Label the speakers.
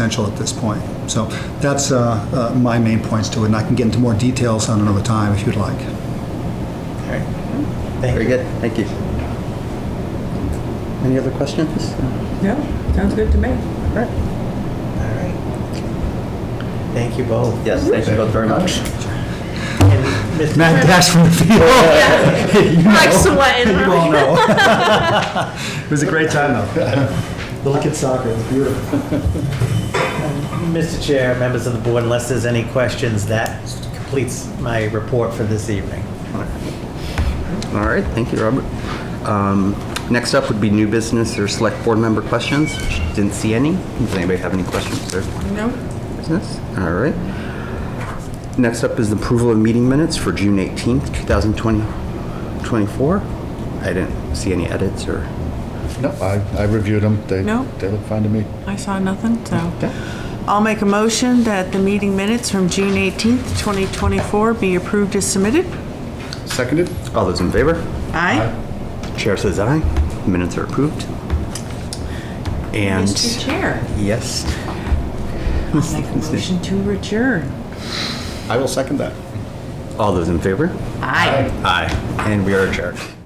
Speaker 1: substantial at this point. So that's uh, uh, my main points to it, and I can get into more details on another time if you'd like.
Speaker 2: Alright.
Speaker 3: Very
Speaker 2: Thank you.
Speaker 3: good, thank you. Any other questions?
Speaker 4: Yeah, sounds good to me.
Speaker 2: Alright. Thank you both.
Speaker 3: Yes, thank you both very much.
Speaker 2: And Mr.
Speaker 1: Matt Dash from the field.
Speaker 5: Like sweating.
Speaker 1: You all know. It was a great time, though. Look at soccer, it's beautiful.
Speaker 2: Mr. Chair, members of the board, unless there's any questions, that completes my report for this evening.
Speaker 3: All right, thank you, Robert. Um, Next up would be new business or select board member questions. Didn't see any. Does anybody have any questions or
Speaker 5: No,
Speaker 3: business? All right. Next up is the approval of meeting minutes for June 18th, 2024. I didn't see any edits or,
Speaker 6: No, I, I reviewed them. They,
Speaker 5: No?
Speaker 6: they look fine to me.
Speaker 5: I saw nothing, so. I'll make a motion that the meeting minutes from June 18th, 2024 be approved as submitted.
Speaker 6: Seconded?
Speaker 3: all those in favor?
Speaker 5: Aye.
Speaker 3: Chair says aye. Minutes are approved. And,
Speaker 5: Mr. Chair,
Speaker 3: yes.
Speaker 5: I'll make a motion to adjourn.
Speaker 6: I will second that.
Speaker 3: All those in favor?
Speaker 5: Aye.
Speaker 3: Aye. And we are adjourned.